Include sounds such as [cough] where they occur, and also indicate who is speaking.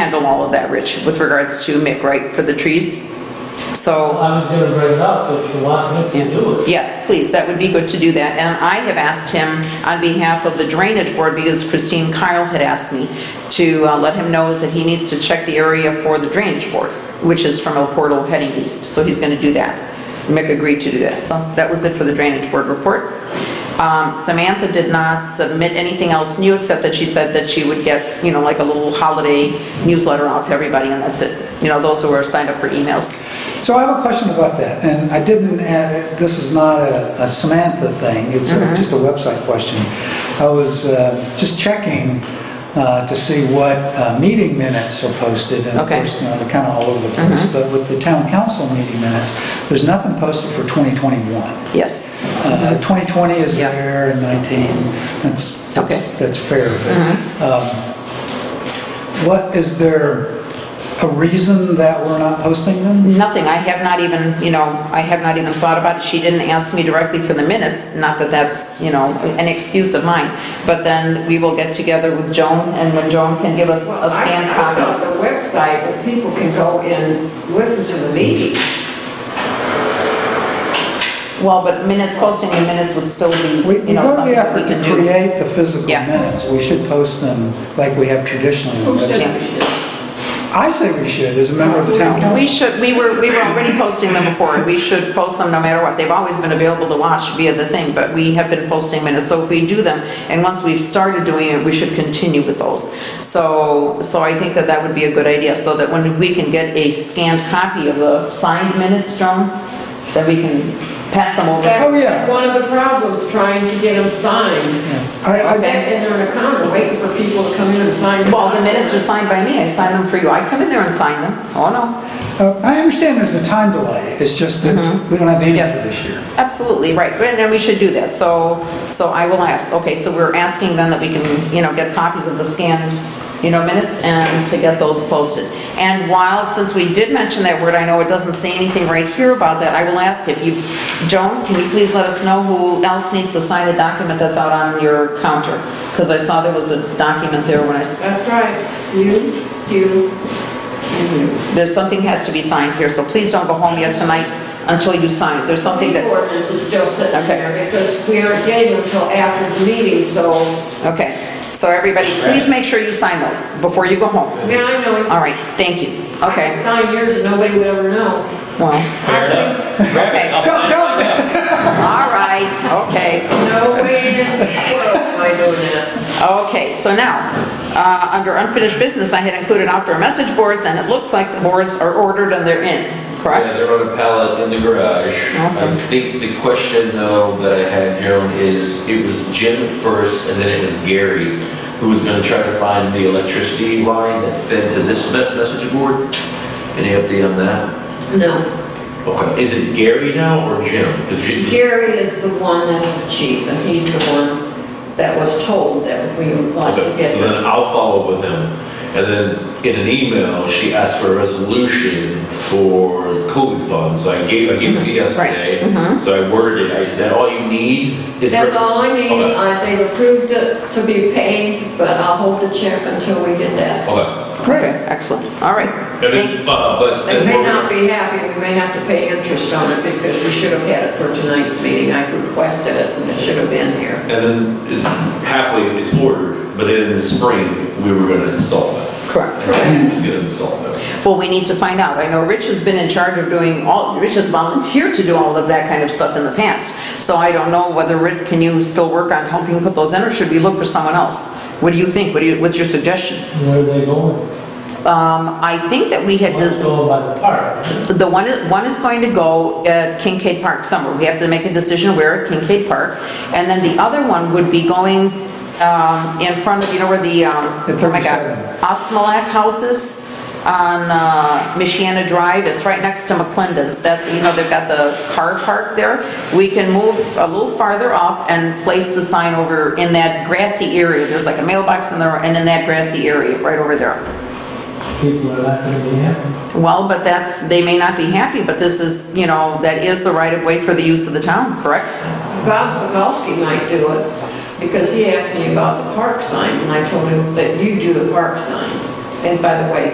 Speaker 1: handle all of that, Rich, with regards to Mick, right, for the trees? So,
Speaker 2: I was gonna bring it up, but you want me to do it.
Speaker 1: yes, please, that would be good to do that. And I have asked him on behalf of the Drainage Board, because Christine Kyle had asked me to uh, let him know that he needs to check the area for the Drainage Board, which is from El Portal heading east, so he's going to do that. Mick agreed to do that, so that was it for the Drainage Board report. Um, Samantha did not submit anything else new, except that she said that she would get, you know, like a little holiday newsletter out to everybody, and that's it. You know, those who are signed up for emails.
Speaker 3: So I have a question about that, and I didn't, add- this is not a a Samantha thing, it's
Speaker 1: Mm-hmm.
Speaker 3: a- just a website question. I was uh, just checking uh, to see what uh, meeting minutes are posted, and of
Speaker 1: Okay. Mm-hmm.
Speaker 3: course, you know, they're kind of all over the place, but with the town council meeting minutes, there's nothing posted for 2021.
Speaker 1: Yes.
Speaker 3: Uh, 2020 is
Speaker 1: Mm-hmm. Yeah.
Speaker 3: there, and 19, that's, that's-
Speaker 1: Okay. Mm-hmm.
Speaker 3: that's fair. but, um, What, is there a reason that we're not posting them?
Speaker 1: Nothing, I have not even, you know, I have not even thought about it. She didn't ask me directly for the minutes, not that that's, you know, an excuse of mine. But then we will get together with Joan, and when Joan can give us
Speaker 4: Well,
Speaker 1: a
Speaker 4: I
Speaker 1: scanned
Speaker 4: I
Speaker 1: copy.
Speaker 4: put up the website where people can go and listen to the meeting.
Speaker 1: Well, but minutes, posting the minutes would still
Speaker 3: We
Speaker 1: be,
Speaker 3: we
Speaker 1: you know,
Speaker 3: go to
Speaker 1: something
Speaker 3: the
Speaker 1: we
Speaker 3: effort to
Speaker 1: can do.
Speaker 3: create the physical
Speaker 1: Yeah.
Speaker 3: minutes. We should post them like we have traditionally. on the website. I say we should, as a member of the town
Speaker 1: We
Speaker 3: council.
Speaker 1: should, we were, we were already posting them before, we should post them no matter what. They've always been available to watch via the thing, but we have been posting minutes, so if we do them, and once we've started doing it, we should continue with those. So, so I think that that would be a good idea, so that when we can get a scanned copy of the signed minutes, Joan, that we can pass them over.
Speaker 3: Oh, yeah.
Speaker 4: One of the problems, trying to get them signed.
Speaker 3: I,
Speaker 4: Back
Speaker 3: I,
Speaker 4: in there in a corner, waiting for people to come in and sign. them.
Speaker 1: Well, the minutes are signed by me, I sign them for you, I come in there and sign them, oh no.
Speaker 3: uh, I understand there's a time delay. It's just that we don't have the answer
Speaker 1: Mm-hmm. Yes.
Speaker 3: for this year.
Speaker 1: Absolutely, right, and then we should do that, so, so I will ask, okay, so we're asking then that we can, you know, get copies of the scanned, you know, minutes, and to get those posted. And while, since we did mention that word, I know it doesn't say anything right here about that, I will ask if you, Joan, can you please let us know who else needs to sign the document that's out on your counter? Because I saw there was a document there when I, s-
Speaker 4: That's right, you, you, and you.
Speaker 1: there's, something has to be signed here, so please don't go home yet tonight until you sign it, there's something
Speaker 4: The
Speaker 1: that,
Speaker 4: ordinance is still sitting
Speaker 1: Okay.
Speaker 4: there because we aren't getting them until after the meeting, so,
Speaker 1: okay. So everybody, please make sure you sign those before you go home.
Speaker 4: I mean, I know.
Speaker 1: All right, thank you. Okay,
Speaker 4: Sign yours and nobody would ever know.
Speaker 1: well, okay, all
Speaker 3: Go, go! [laughs]
Speaker 1: right, okay.
Speaker 4: No way in the world am I doing that.
Speaker 1: Okay, so now, uh, under unfinished business, I had included outdoor message boards, and it looks like the boards are ordered and they're in,
Speaker 5: Yeah,
Speaker 1: correct?
Speaker 5: they're on a pallet in the garage.
Speaker 1: Awesome.
Speaker 5: I think the question though that I had, Joan, is it was Jim first and then it was Gary who was going to try to find the electricity line that fed to this me- message board. Any update on that?
Speaker 4: No,
Speaker 5: Okay, is it Gary now or Jim? Because Jim,
Speaker 4: Gary is the one that's the chief, and he's the one that was told that we would like to
Speaker 5: Okay,
Speaker 4: get.
Speaker 5: so then I'll follow up with him. And then in an email, she asked for a resolution for COVID funds. So I gave, I gave it to you yesterday. So I worded it, is that all you need? It's
Speaker 4: Mm-hmm. That's
Speaker 5: re-
Speaker 4: all I need,
Speaker 5: Okay.
Speaker 4: I, they approved it to be paid, but I'll hold the check until we get that.
Speaker 5: Okay.
Speaker 1: Okay, excellent, all right.
Speaker 5: And
Speaker 1: Thank-
Speaker 5: then, uh, but.
Speaker 4: They
Speaker 5: then
Speaker 4: may
Speaker 5: we're-
Speaker 4: not be happy, we may have to pay interest on it because we should have had it for tonight's meeting, I requested it and it should have been here.
Speaker 5: And then it- halfway it's ordered, but then in the spring, we were gonna install that.
Speaker 1: Correct.
Speaker 5: Who's gonna install that?
Speaker 1: Well, we need to find out. I know Rich has been in charge of doing all, Rich has volunteered to do all of that kind of stuff in the past. So I don't know whether, Rich, can you still work on helping put those in, or should we look for someone else? What do you think? What do you, what's your suggestion?
Speaker 2: Where they going?
Speaker 1: Um, I think that we had,
Speaker 2: Let's go by the park.
Speaker 1: the one, one is going to go at Kincaid Park somewhere. We have to make a decision where at Kincaid Park. And then the other one would be going um, in front of, you know where the, um,
Speaker 3: At
Speaker 1: oh my
Speaker 3: 37.
Speaker 1: God, Osmalak House is on uh, Michiana Drive. It's right next to McClendon's. That's, you know, they've got the car park there. We can move a little farther up and place the sign over in that grassy area. There's like a mailbox in there and in that grassy area, right over there.
Speaker 2: People are not gonna be happy.
Speaker 1: Well, but that's, they may not be happy, but this is, you know, that is the right of way for the use of the town, correct?
Speaker 4: Bob Sokolsky might do it because he asked me about the park signs and I told him that you do the park signs. And by the way,